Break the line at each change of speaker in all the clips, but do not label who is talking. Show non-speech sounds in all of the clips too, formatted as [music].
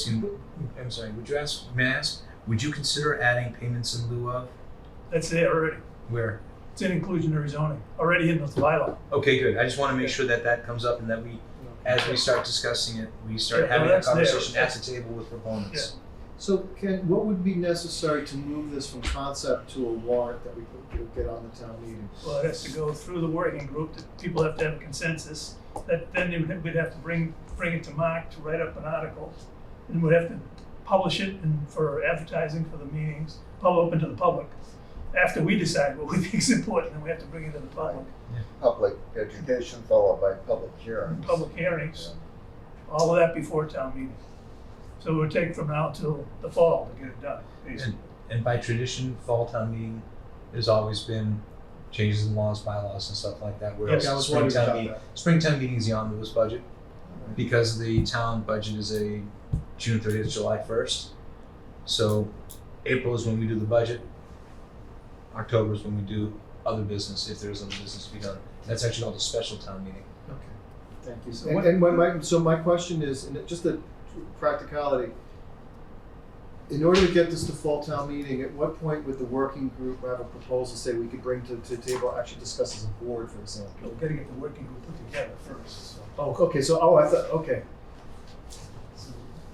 Excuse- I'm sorry, would you ask, may I ask, would you consider adding payments in lieu of?
That's it already.
Where?
It's in inclusionary zoning, already in the bylaw.
Okay, good. I just want to make sure that that comes up and that we, as we start discussing it, we start
Yeah, no,
having a
that's there.
conversation at the table with proponents.
So Ken, what would be necessary to move this from concept to a warrant that we could could get on the town meeting?
Well, it has to go through the working group, that people have to have a consensus, that then they would- we'd have to bring, bring it to Mark to write up an article. And we'd have to publish it and for advertising for the meetings, pub open to the public. After we decide what we [laughs] think is important, then we have to bring it to the public,
public education followed by public hearings.
public hearings, all of that before town meeting. So it would take from now till the fall to get it done, basically.
And by tradition, fall town meeting has always been changes in laws, bylaws and stuff like that, whereas
Yes,
I was
spring
wondering
town
about
meeting,
that.
spring town meeting is the omnibus budget. Because the town budget is a June thirtieth, July first. So April is when we do the budget. October is when we do other business, if there is other business to be done. That's actually called a special town meeting.
Okay, thank you.
So
And,
what-
and my, my, so my question is, and it- just a practicality. In order to get this to fall town meeting, at what point would the working group have a proposal, say, we could bring to, to table, actually discuss as a board, for example?
We're gonna get the working group put together first, so.
Oh, okay, so, oh, I thought, okay.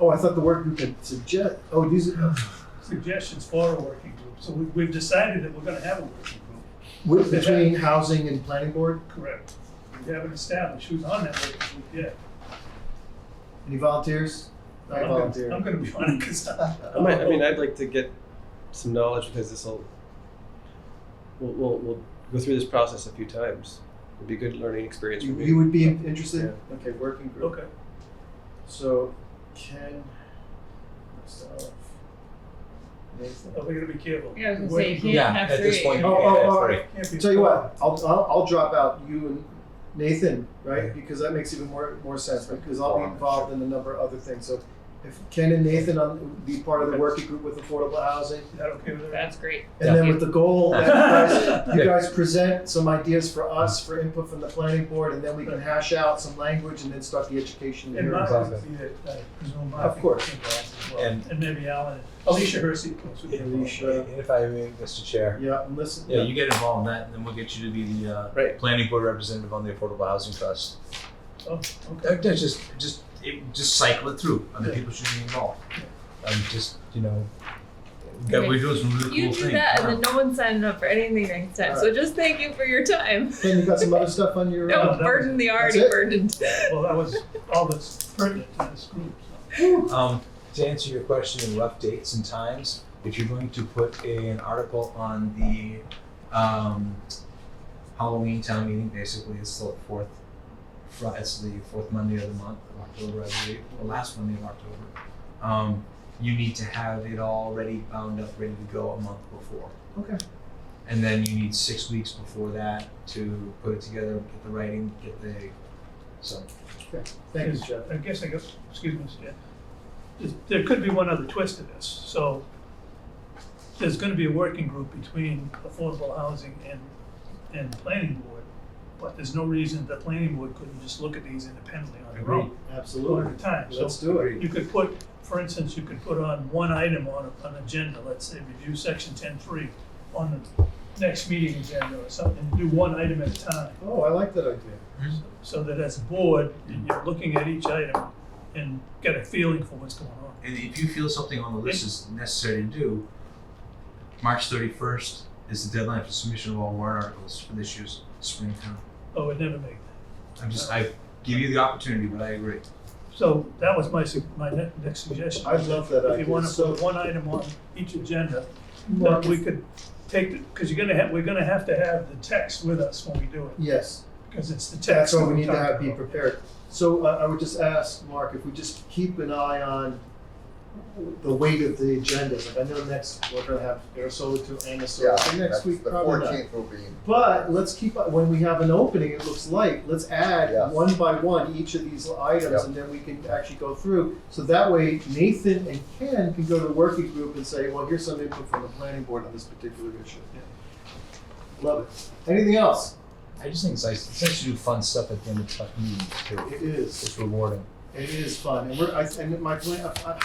Oh, I thought the working group had suggest, oh, these, are-
suggestions for a working group. So we, we've decided that we're gonna have a working group.
with- between housing and planning board?
Correct. We haven't established who's on that working group yet.
Any volunteers? I
I'm gonna-
volunteer.
I'm gonna be on it, cause
I might, I mean, I'd like to get some knowledge because this will, we'll, we'll, we'll go through this process a few times. It'd be a good learning experience for
You,
me.
you would be interested? Okay, working group.
Okay.
So Ken, myself, Nathan.
Are we gonna be careful?
Yeah, I was gonna say,
Working
you
group.
Yeah, have
At this
three.
point,
Oh,
you
oh,
can't have
oh,
three.
Can't be-
Tell you what, I'll, I'll, I'll drop out you and Nathan, right? Because that makes even more, more sense because I'll be involved in a number of other things. So if Ken and Nathan on, be part of the working group with affordable housing.
Is that okay with everyone?
That's great.
And then with the goal that you guys you
Okay.
guys present some ideas for us for input from the planning board, and then we can hash out some language and then start the education.
And Mark
hearing.
Exactly.
would be there, I presume Mark.
Of course.
would be involved as well.
And-
And maybe Alan, Alicia Hersey, of course, would be involved.
Alicia.
And if I may, Mr. Chair.
Yeah, and listen.
Yeah, you get involved in that and then we'll get you to be the uh
Right.
planning board representative on the Affordable Housing Trust.
Oh, okay.
That- That's just, just, it, just cycle it through. Other
Yeah.
people should be involved. Um, just, you know, that we're doing some really
You
cool
do
things.
that,
Yeah.
and then no one signed up for anything next time. So just thank you for your time.
Ken, you got some other stuff on your.
No.
uh,
Don't burden the already
it?
burdened.
Well, that was all that's pertinent to this group, so.
Um, to answer your question in rough dates and times, if you're going to put a- an article on the um, Halloween town meeting, basically it's the fourth, Fri- it's the fourth Monday of the month of October, I believe, or last Monday of October. Um, you need to have it already bound up, ready to go a month before.
Okay.
And then you need six weeks before that to put it together, get the writing, get the, so.
Thank you,
Is-
Jeff.
I guess, I guess, excuse me, Mr. Chair. There's- There could be one other twist to this, so there's gonna be a working group between affordable housing and, and planning board, but there's no reason the planning board couldn't just look at these independently on their own, one
Absolutely.
at a time, so.
Let's do it.
You could put, for instance, you could put on one item on a- an agenda, let's say, review section ten three on the next meeting agenda or something, do one item at a time.
Oh, I like that idea.
So that as a board, you're looking at each item and get a feeling for what's going on.
And if you feel something on the list is necessary to do, March thirty-first is the deadline for submission of all warrant articles for this year's spring town.
Oh, it never made that.
I'm just, I give you the opportunity, but I agree.
So that was my, su- my ne- next suggestion.
I love that
If
idea.
you wanna
So-
put one item on each agenda,
Mark,
that we could take, the because you're gonna have, we're gonna have to have the text with us when we do it,
Yes,
because it's the text.
that's why
that
we need to
talked
have, be
about.
prepared. So uh, I would just ask, Mark, if we just keep an eye on the weight of the agendas. Like I know next, we're gonna have air solar two and a solar.
Yeah,
So
that's-
Next week,
the
probably not.
fourteenth will be,
But let's keep, when we have an opening, it looks like, let's
Yeah.
add one by one each of these items
Yeah.
and then we can actually go through. So that way Nathan and Ken can go to the working group and say, well, here's some input from the planning board on this particular issue. Love it. Anything else?
I just think it's nice, it's nice to do fun stuff at the end of tough meetings too.
It is,
It's rewarding.
it is fun. And we're, I, and my plan, I- I-